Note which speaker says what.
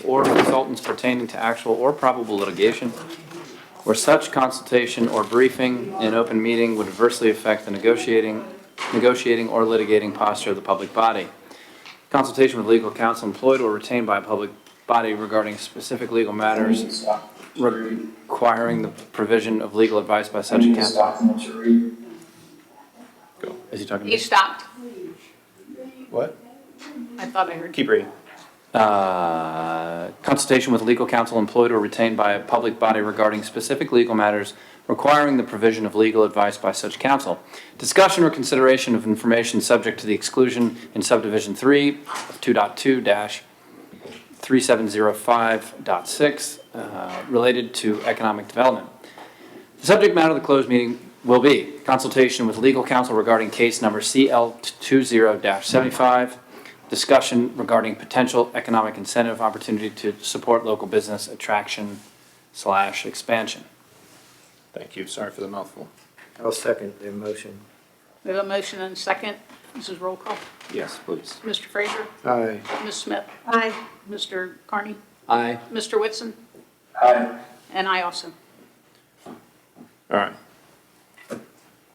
Speaker 1: or consultants pertaining to actual or probable litigation, where such consultation or briefing in open meeting would adversely affect the negotiating, negotiating or litigating posture of the public body. Consultation with legal counsel employed or retained by a public body regarding specific legal matters requiring the provision of legal advice by such counsel. Is he talking to me?
Speaker 2: You stopped.
Speaker 1: What?
Speaker 2: I thought I heard.
Speaker 3: Keep reading.
Speaker 1: Uh, consultation with legal counsel employed or retained by a public body regarding specific legal matters requiring the provision of legal advice by such counsel. Discussion or consideration of information subject to the exclusion in subdivision three of two dot two dash three seven zero five dot six, uh, related to economic development. The subject matter of the closed meeting will be consultation with legal counsel regarding case number CL two zero seventy-five, discussion regarding potential economic incentive opportunity to support local business attraction slash expansion.
Speaker 3: Thank you. Sorry for the mouthful.
Speaker 4: I'll second the motion.
Speaker 2: We have a motion and a second. This is roll call.
Speaker 3: Yes, please.
Speaker 2: Mr. Fraser,
Speaker 4: Aye.
Speaker 2: Ms. Smith,
Speaker 5: Aye.
Speaker 2: Mr. Carney,
Speaker 1: Aye.
Speaker 2: Mr. Whitson,
Speaker 4: Aye.
Speaker 2: and I also.
Speaker 3: All right.